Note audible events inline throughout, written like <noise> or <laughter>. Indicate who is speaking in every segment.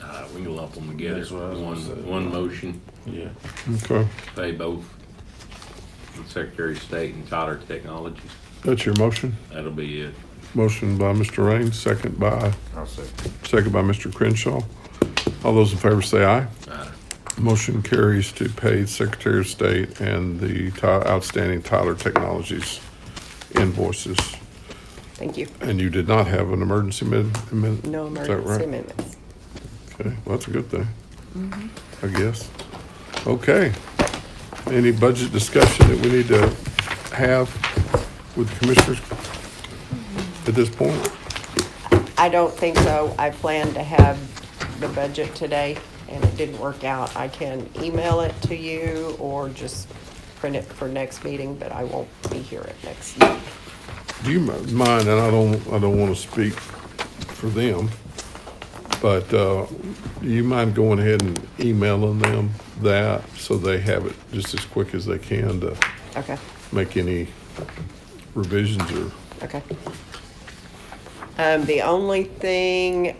Speaker 1: Uh, lump them together,
Speaker 2: That's what I was gonna say.
Speaker 1: one, one motion,
Speaker 2: Yeah.
Speaker 3: Okay,
Speaker 1: pay both Secretary of State and Tyler Technologies.
Speaker 3: that's your motion.
Speaker 1: That'll be it.
Speaker 3: Motion by Mr. Raines, second by,
Speaker 2: I'll second.
Speaker 3: second by Mr. Crenshaw. All those in favor say aye.
Speaker 1: Aye.
Speaker 3: Motion carries to pay Secretary of State and the Ty- outstanding Tyler Technologies invoices.
Speaker 4: Thank you.
Speaker 3: And you did not have an emergency amendment?
Speaker 4: No emergency amendments.
Speaker 3: Okay, well, that's a good thing,
Speaker 4: Mm-hmm.
Speaker 3: I guess. Okay. Any budget discussion that we need to have with commissioners at this point?
Speaker 4: I don't think so. I planned to have the budget today and it didn't work out. I can email it to you or just print it for next meeting, but I won't be here at next. meeting.
Speaker 3: Do you mi- mind, and I don't, I don't want to speak for them, but uh, do you mind going ahead and emailing them that so they have it just as quick as they can to
Speaker 4: Okay,
Speaker 3: make any revisions or,
Speaker 4: okay. Um, the only thing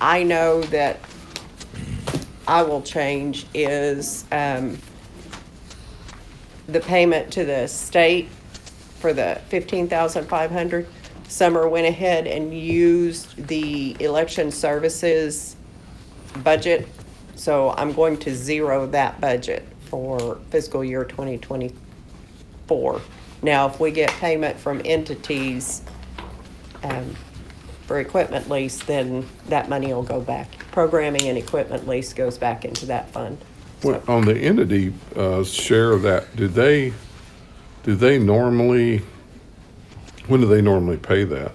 Speaker 4: I know that I will change is, um, the payment to the state for the fifteen thousand five hundred. Summer went ahead and used the election services budget, so I'm going to zero that budget for fiscal year twenty twenty-four. Now, if we get payment from entities, um, for equipment lease, then that money will go back. Programming and equipment lease goes back into that fund.
Speaker 3: Well, on the entity uh, share of that, do they, do they normally, when do they normally pay that?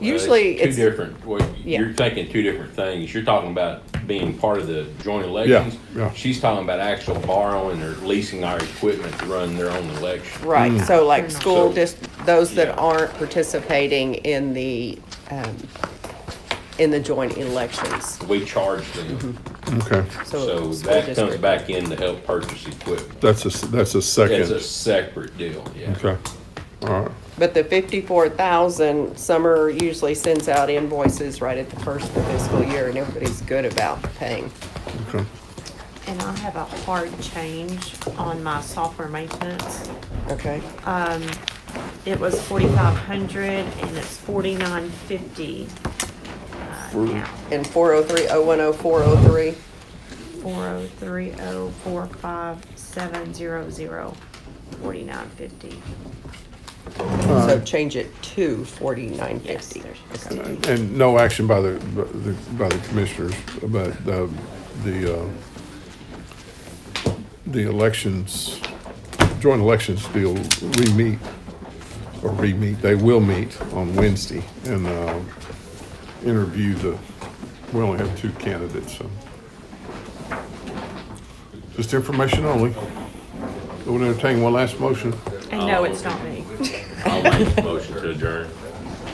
Speaker 4: Usually,
Speaker 1: Two
Speaker 4: it's.
Speaker 1: different, well, you're
Speaker 4: Yeah.
Speaker 1: thinking two different things. You're talking about being part of the joint elections.
Speaker 3: yeah.
Speaker 1: She's talking about actual borrowing or leasing our equipment to run their own election.
Speaker 4: Right,
Speaker 1: Mm.
Speaker 4: so like school,
Speaker 1: So-
Speaker 4: just those that
Speaker 1: Yeah.
Speaker 4: aren't participating in the, um, in the joint elections.
Speaker 1: We charge them,
Speaker 3: Okay,
Speaker 4: Mm-hmm. So
Speaker 1: so
Speaker 4: school
Speaker 1: that comes
Speaker 4: district.
Speaker 1: back in to help purchase equipment.
Speaker 3: that's a, s- that's a
Speaker 1: It's a
Speaker 3: second.
Speaker 1: separate deal, yeah.
Speaker 3: Okay, all right.
Speaker 4: But the fifty-four thousand, Summer usually sends out invoices right at the first of the fiscal year and everybody's good about paying.
Speaker 3: Okay.
Speaker 5: And I have a hard change on my software maintenance.
Speaker 4: Okay,
Speaker 5: It was forty-five hundred and it's forty-nine fifty. Now,
Speaker 4: and four oh three, oh one oh, four oh three,
Speaker 5: four oh three oh four five seven zero zero, forty-nine fifty.
Speaker 4: so change it to forty-nine
Speaker 5: Uh-huh. Yes,
Speaker 4: fifty.
Speaker 5: there's just
Speaker 4: Okay.
Speaker 3: And no action by the, by the- by the commissioners about uh, the, uh, the elections, joint elections deal, we meet, or re-meet, they will meet on Wednesday and uh, interview the, we only have two candidates, so. Just information only. I would entertain one last motion.
Speaker 5: And no, it's not me.
Speaker 1: I'll make a motion to adjourn.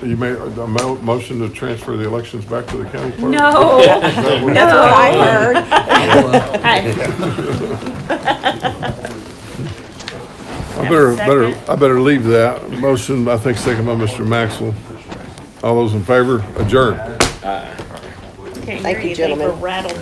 Speaker 3: You made a mo- motion to transfer the elections back to the county clerk?
Speaker 5: <laughs> No,
Speaker 3: That would-
Speaker 4: I
Speaker 5: no.
Speaker 4: <laughs> heard.
Speaker 5: Hey, <laughs>
Speaker 3: I better,
Speaker 5: Second.
Speaker 3: better, I better leave that. Motion, I think, second by Mr. Maxwell. All those in favor, adjourn.
Speaker 5: Can't
Speaker 4: Thank you,
Speaker 5: hear you, they were
Speaker 4: gentlemen.
Speaker 5: rattled